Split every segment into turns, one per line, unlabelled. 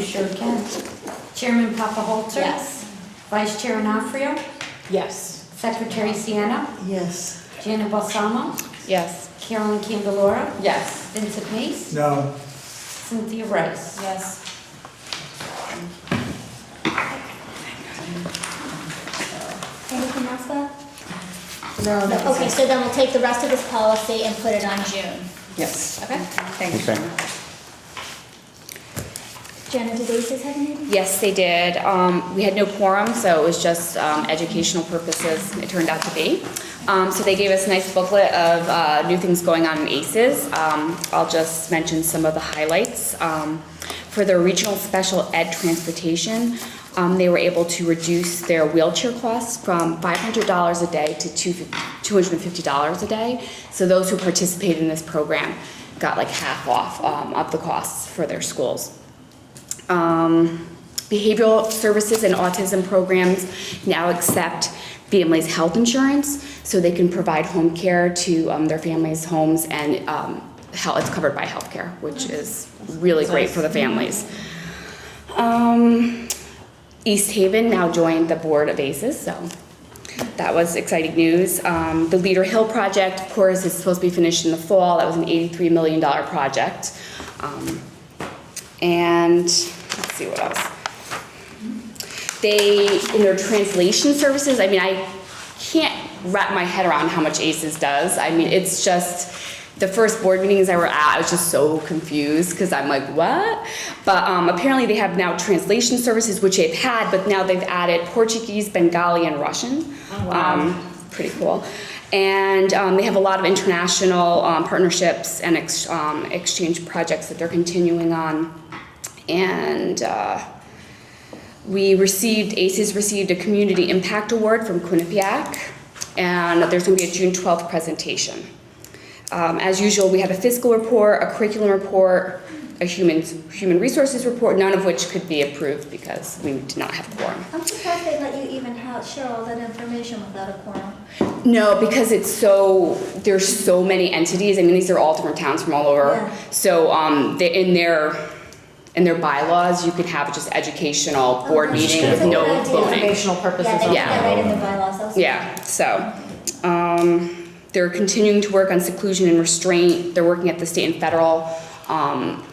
Sure can. Chairman Papaholzer? Vice Chair Anafrio?
Yes.
Secretary Sienna?
Yes.
Janet Balsamo?
Yes.
Carolyn Candelora?
Yes.
Vincent Mace?
No,
Cynthia Rice?
Yes.
Anything else though?
No, that was
Okay,
it.
so then we'll take the rest of this policy and put it on June.
Yes.
Okay.
Thank you.
Okay.
Jenna, do they just have anything?
Yes, they did. Um, We had no quorum, so it was just um, educational purposes, it turned out to be. Um, So they gave us a nice booklet of uh, new things going on in ACES. Um, I'll just mention some of the highlights. Um, For their regional special ed transportation, um, they were able to reduce their wheelchair costs from $500 a day to two- $250 a day. So those who participated in this program got like half off um, of the costs for their schools um, behavioral services and autism programs now accept families' health insurance, so they can provide home care to um, their families' homes, and um, hel- it's covered by health care, which is really great for the families. Um, East Haven now joined the board of ACES, so that was exciting news. Um, the Leader Hill project, of course, is supposed to be finished in the fall. That was an $83 million project. Um, and let's see what else. They, in their translation services, I mean, I can't wrap my head around how much ACES does. I mean, it's just, the first board meetings I were at, I was just so confused because I'm like, what? But um, apparently they have now translation services, which they've had, but now they've added Portuguese, Bengali, and Russian. Um, pretty cool. And um, they have a lot of international um, partnerships and ex- um, exchange projects that they're continuing on. And uh, we received, ACES received a Community Impact Award from Quinnipiac, and there's going to be a June 12th presentation. Um, As usual, we had a fiscal report, a curriculum report, a human, human resources report, none of which could be approved because we did not have quorum.
I'm surprised they let you even have, share all that information without a quorum.
No, because it's so, there's so many entities. I mean, these are all different towns from all over.
Yeah.
So, um, the- in their, in their bylaws, you could have just educational board
Okay.
meeting with no
That's a good idea.
voting.
Informational purposes
Yeah, they put
only.
that right in the bylaws also.
Yeah, so, um, they're continuing to work on seclusion and restraint. They're working at the state and federal, um,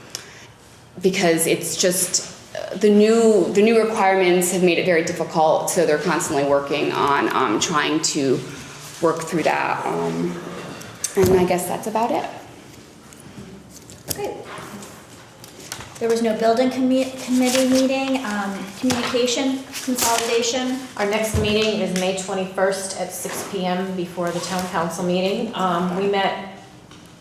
because it's just, uh, the new, the new requirements have made it very difficult, so they're constantly working on, um, trying to work through that. Um, and I guess that's about it.
Great. There was no building commu- committee meeting, um, communication, consolidation.
Our next meeting is May 21st at 6 PM before the town council meeting. Um, We met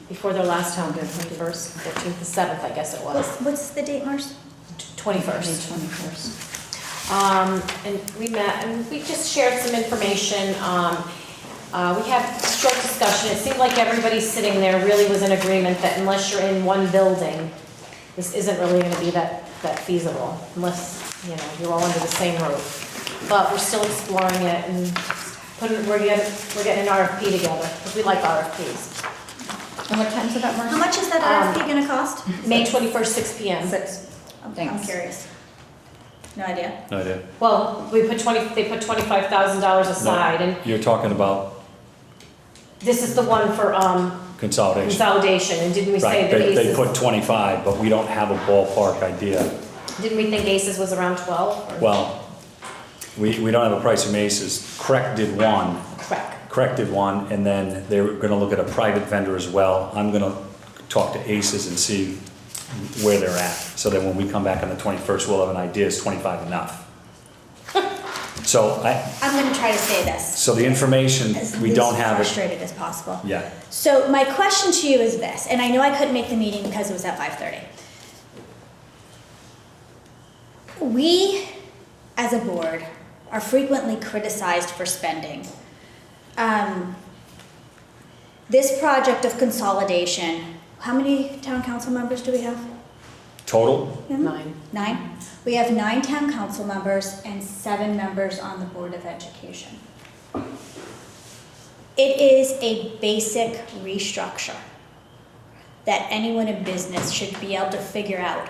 before their last town, meeting, 21st, 14th, the 7th, I guess it was.
What's, what's the date, Mars?
21st. twenty-first. Um, and we met, and we just shared some information, um, uh, we had a short discussion, it seemed like everybody sitting there really was in agreement that unless you're in one building, this isn't really gonna be that, that feasible, unless, you know, you're all under the same roof. But we're still exploring it and putting, we're getting, we're getting an RFP together, because we like RFPs.
And what time's it that
How
Marcy?
much is that RFP gonna cost?
May twenty-first, six P M.
I'm- I'm
Thanks.
curious. No idea.
No idea.
Well, we put twenty, they put twenty-five thousand dollars aside, and
You're talking about
This is the one for um,
consolidation.
consolidation, and didn't we say
Right,
that
they, they
ACES,
put 25, but we don't have a ballpark idea.
didn't we think ACES was around 12? or-
Well, we, we don't have a price from ACES. Crec did one,
Correct.
Crec did one, and then they were gonna look at a private vendor as well. I'm gonna talk to ACES and see where they're at, so that when we come back on the 21st, we'll have an idea, is 25 enough? So I,
I'm gonna try to say this.
so the information,
as
we
least
don't have it.
Frustrated as possible.
Yeah.
So my question to you is this, and I know I couldn't make the meeting because it was at five thirty. We, as a board, are frequently criticized for spending. Um, This project of consolidation, how many town council members do we have?
Total,
Nine.
Nine? We have nine town council members and seven members on the Board of Education. It is a basic restructure that anyone in business should be able to figure out